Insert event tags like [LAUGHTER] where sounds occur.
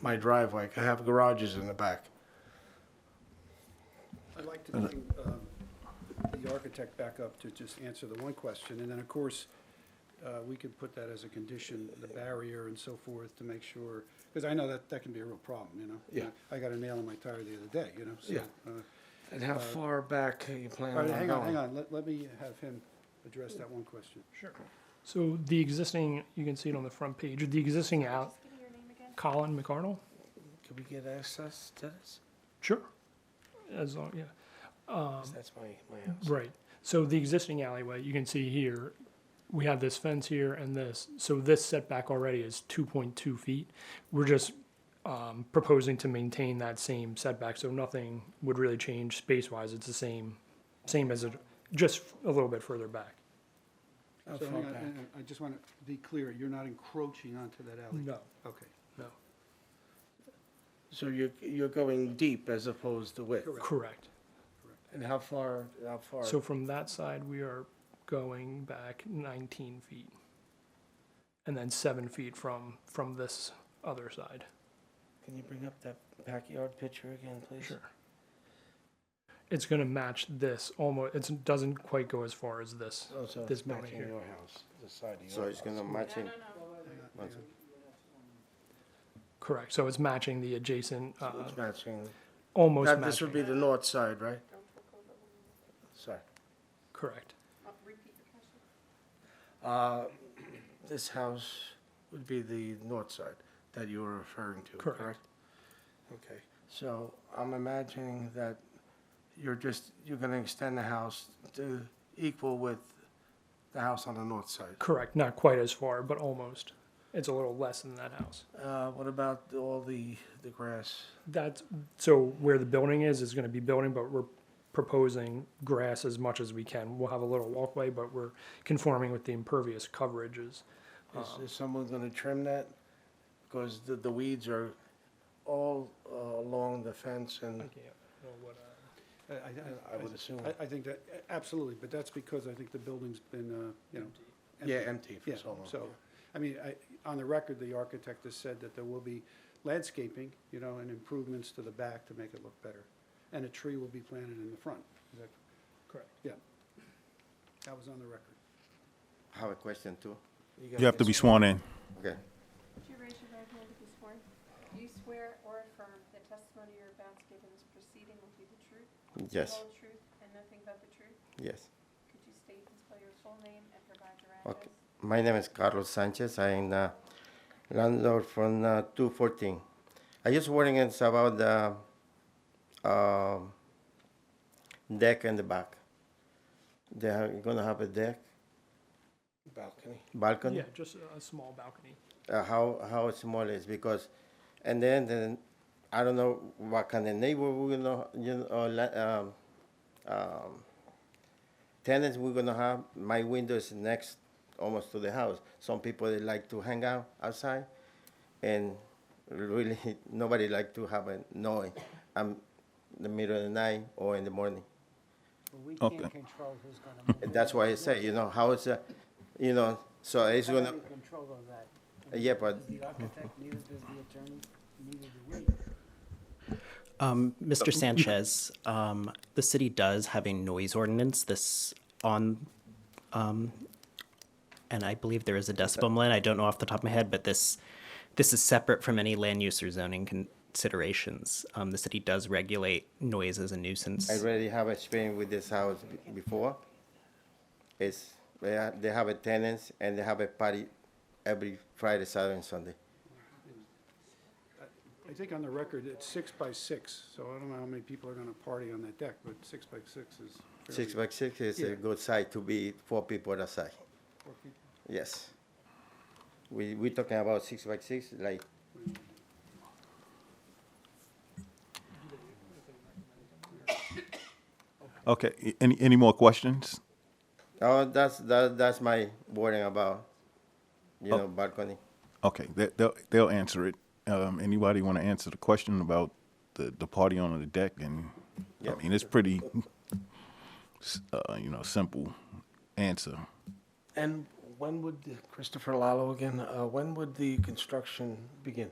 my driveway. I have garages in the back. I'd like to bring um, the architect back up to just answer the one question, and then, of course, uh, we could put that as a condition, the barrier and so forth, to make sure, because I know that, that can be a real problem, you know? Yeah. I got a nail in my tire the other day, you know, so. Yeah. uh, And how far back are you planning All on right, going? hang on, hang on, let, let me have him address that one question. So the existing, you can see it on the front page, the existing out, Colin McArdle? Can we get access to this? Sure. As long, yeah, 'Cause Um, That's my, my house. right. So the existing alleyway, you can see here, we have this fence here and this. So this setback already is two point two feet. We're just, um, proposing to maintain that same setback, so nothing would really change space-wise. It's the same, same as it, just a little bit further back. How So far hang on, back? hang on, I just want to be clear, you're not encroaching onto that alley? No, Okay, no. So you're, you're going deep as opposed to width? Correct. And how far, how far? So from that side, we are going back nineteen feet. And then seven feet from, from this other side. Can you bring up that backyard picture again, please? Sure. It's gonna match this almost, it doesn't quite go as far as this. Oh, so This it's building matching here. your house, the side of your house. So it's gonna match him. hang on, One hang on. Correct, so it's matching the adjacent, So uh, It's matching. almost That, this would be matching, the north side, right? Sorry. correct. Uh, This house would be the north side that you were referring to, Correct. correct? Okay, so I'm imagining that you're just, you're gonna extend the house to equal with the house on the north side. Correct, not quite as far, but almost. It's a little less than that house. Uh, What about all the, the grass? That's, so where the building is, is gonna be building, but we're proposing grass as much as we can. We'll have a little walkway, but we're conforming with the impervious coverages. Is- Is someone gonna trim that? Because the, the weeds are all uh, along the fence and I- uh, I- I would assume, I, I think that, absolutely, but that's because I think the building's been, uh, you know. yeah, empty. empty for Yeah, so long. so, I mean, I, on the record, the architect has said that there will be landscaping, you know, and improvements to the back to make it look better. And a tree will be planted in the front. Is that- Correct. Yeah. That was on the record. I have a question too. gotta You have to get be sworn in. Okay. Would you raise your right hand if you sworn? Do you swear or affirm the testimony you're about to give in this proceeding will be the truth? The Yes, whole truth and nothing but the truth? yes. Could you state and spell your full name and provide your Okay. address? My name is Carlos Sanchez. I'm the landlord from uh, 214. I just wondering it's about the um, deck in the back. They are gonna have a deck Balcony. balcony. Yeah, just a- a small balcony. uh, how how small it is because, and then then I don't know what kind of neighbor we're gonna you know or la- um, um, tenants we're gonna have. My window is next almost to the house. Some people they like to hang out outside, and really [LAUGHS] nobody like to have a noise. I'm the middle of the night or in the morning. We Okay. can't control who's gonna move. And that's why I say you know how it's a, you know so it's How do gonna we Control all that. yeah but Does the architect, neither does the attorney, neither do we. Um, Mr. Sanchez, um, the city does have a noise ordinance this on, um, and I believe there is a decibel limit. I don't know off the top of my head, but this, this is separate from any land use or zoning considerations. Um, the city does regulate noise as a nuisance. I already have experience with this house b- before. It's, they ha- they have a tenants and they have a party every Friday, Saturday, and Sunday. I think on the record, it's six by six, so I don't know how many people are gonna party on that deck, but six by six is. fairly- Six by six is Yeah. a good size to be four people outside, four people. yes. We, we talking about six by six, like, Okay, a- any, any more questions? oh, that's, that, that's my worrying about, you know, balcony. Okay, they, they'll, they'll answer it. Um, anybody want to answer the question about the, the party on the deck? And Yeah. I mean, it's pretty, s- uh, you know, simple answer. And when would, the- Christopher Lalo again, uh, when would the construction begin?